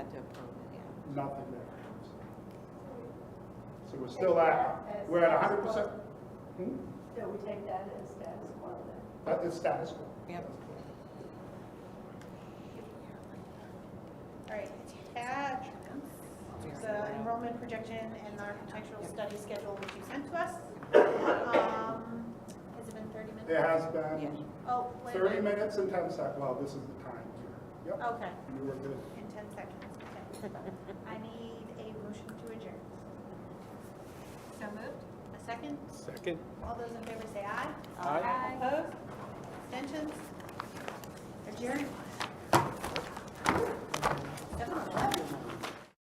nothing there. So we're still at, we're at hundred percent, Hmm? So we take that as status quo then? that is status quo. Yep. All right, add the enrollment projection and the architectural study schedule which you sent to us. Um, Has it been 30 minutes? It has been Oh, wait a thirty minute. minutes and ten seconds, well, this is the time here. Yep, Okay, you were good. in 10 seconds, okay. I need a motion to adjourn. So moved? A second? Second. All those in favor say aye. Aye. Opposed? Abstentions? Adjourned.